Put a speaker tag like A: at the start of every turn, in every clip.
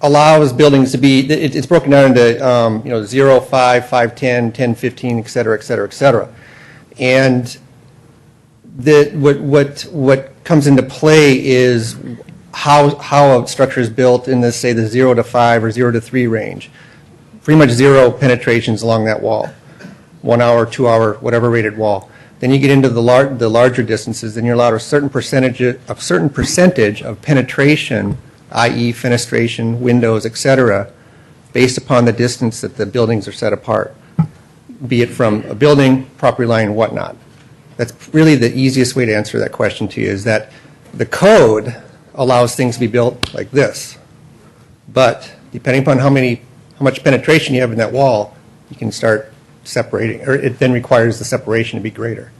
A: allows buildings to be, it- it's broken down into, um, you know, 0, 5, 5, 10, 10, 15, et cetera, et cetera, et cetera. And the, what, what, what comes into play is how, how a structure is built in the, say, the 0 to 5 or 0 to 3 range. Pretty much zero penetrations along that wall, one hour, two hour, whatever rated wall. Then you get into the lar, the larger distances, then you're allowed a certain percentage, a certain percentage of penetration, i.e. fenestration, windows, et cetera, based upon the distance that the buildings are set apart be it from a building, property line, and whatnot. That's really the easiest way to answer that question to you, is that the code allows things to be built like this. But depending upon how many, how much penetration you have in that wall, you can start separating, or it then requires the separation to be greater.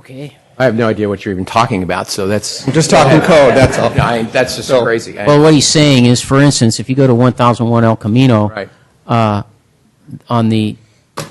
B: Okay.
C: I have no idea what you're even talking about, so that's.
A: I'm just talking code, that's all.
C: No, I- that's just
A: So-
C: crazy. I-
B: Well, what he's saying is, for instance, if you go to 1001 El Camino,
C: Right.
B: uh, on the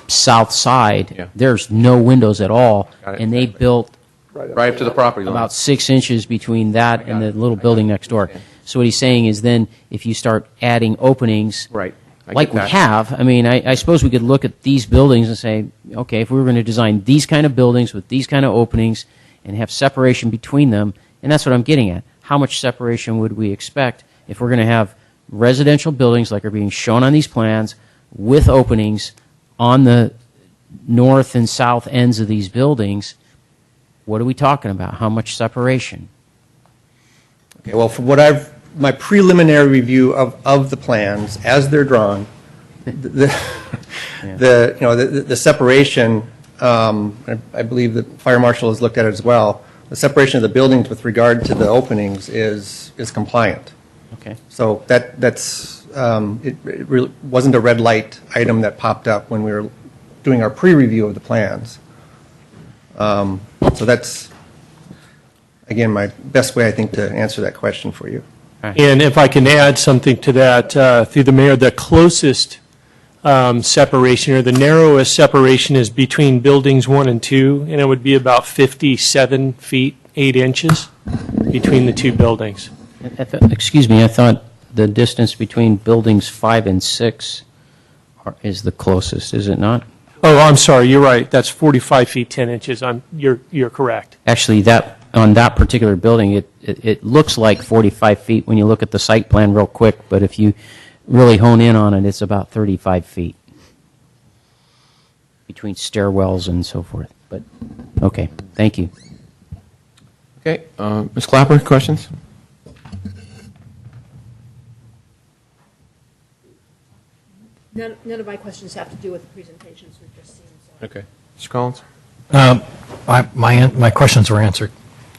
B: south side,
C: Yeah.
B: there's no windows at all,
C: Got it.
B: and they built
C: Right up to the property line.
B: about six inches between that and the
C: it.
B: little
C: I
B: building
C: got it.
B: next door.
C: Understand.
B: So what he's saying is, then if you start adding openings,
C: Right. I get
B: like we
C: that.
B: have, I mean, I, I suppose we could look at these buildings and say, okay, if we were going to design these kind of buildings with these kind of openings and have separation between them, and that's what I'm getting at. How much separation would we expect if we're going to have residential buildings like are being shown on these plans with openings on the north and south ends of these buildings? What are we talking about? How much separation?
A: Okay, well, from what I've, my preliminary review of, of the plans as they're drawn, the, the, you know, the, the separation, um, I I believe the fire marshal has looked at it as well, the separation of the buildings with regard to the openings is, is compliant.
B: Okay.
A: So that, that's, um, it it really wasn't a red light item that popped up when we were doing our pre-review of the plans. Um, So that's, again, my best way, I think, to answer that question for you.
D: And if I can add something to that, uh, through the mayor, the closest um, separation or the narrowest separation is between buildings one and two, and it would be about 57 feet, 8 inches between the two buildings.
B: I thought- Excuse me, I thought the distance between buildings five and six are- is the closest, is it not?
D: Oh, I'm sorry, you're right, that's 45 feet, 10 inches, I'm, you're, you're correct.
B: Actually, that, on that particular building, it, it it looks like 45 feet when you look at the site plan real quick, but if you really hone in on it, it's about 35 feet between stairwells and so forth. But, okay, thank you.
C: Okay, uh, Ms. Clapper, questions?
E: None, none of my questions have to do with the presentations we've just seen, so.
C: Okay. Mr. Collins?
F: My, my, an- my questions were answered.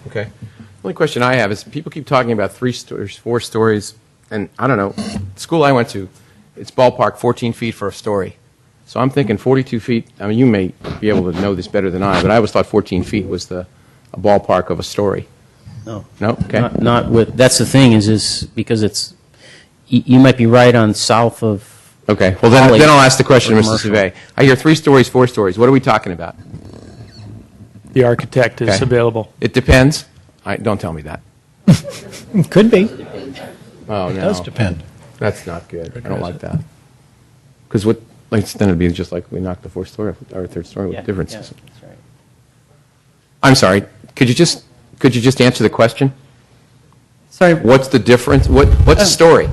C: Okay. The only question I have is people keep talking about three stories, four stories, and I don't know. The school I went to, it's ballpark 14 feet for a story. So I'm thinking 42 feet. I mean, you may be able to know this better than I, but I always thought 14 feet was the a ballpark of a story.
B: No.
C: No? Okay.
B: Not- Not with, that's the thing, is, is because it's, you you might be right on south of
C: Okay. Well, then,
B: Holly
C: then I'll ask the question,
B: or
C: Mr.
B: commercial.
C: Savay. I hear three stories, four stories. What are we talking about?
D: The architect is
C: Okay.
D: available.
C: It depends. I, don't tell me that.
F: Could be.
C: Oh, no.
F: It does depend.
C: That's not good. I don't like that. Because what, like, then it'd be just like we knocked the fourth story off, or third story with differences. I'm sorry. Could you just, could you just answer the question?
G: Sorry. Oh.
C: What's the difference? What, what's the story?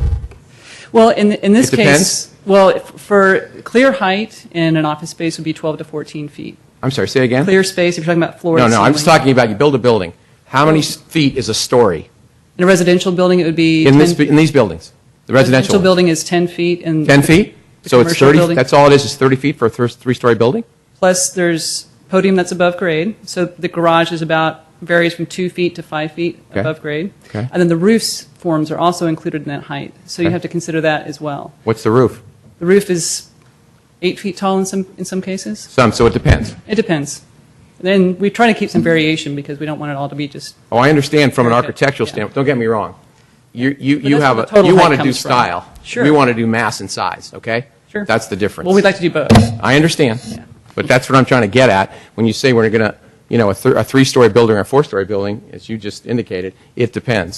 G: Well, in, in this
C: It depends.
G: case, well, f- for clear height in an office space would be 12 to 14 feet.
C: I'm sorry, say again?
G: Clear space, if you're talking about floor
C: No,
G: to
C: no, I'm just
G: ceiling.
C: talking about you build a building. How many s- feet is a story
G: In a residential building, it would be.
C: in this,
G: 10
C: bu- in these buildings? The residential? ones?
G: building is 10 feet and.
C: 10 feet?
G: The
C: So it's
G: commercial
C: 30,
G: building.
C: that's all it is, is 30 feet for a thir- three-story building?
G: Plus, there's podium that's above grade. So the garage is about, varies from two feet to five feet
C: Okay.
G: above grade.
C: Okay.
G: And then the roof's forms are also included in that height. So you
C: Okay.
G: have to consider that as well.
C: What's the roof?
G: The roof is eight feet tall in some, in some cases.
C: Some, so it depends.
G: It depends. Then we try to keep some variation because we don't want it all to be just
C: Oh, I understand from an
G: Okay,
C: architectural
G: yeah.
C: standpoint, don't get me wrong. You, you,
G: But
C: you
G: that's
C: have,
G: where
C: a
G: the total
C: you
G: height
C: want to do
G: comes from.
C: style.
G: Sure.
C: We want to do mass and size, okay?
G: Sure.
C: That's the difference.
G: Well, we'd like to do both.
C: I understand, but that's what I'm trying to get at. When you say we're going to, you know, a, th- a three-story building or a four-story building, as you just indicated, it depends.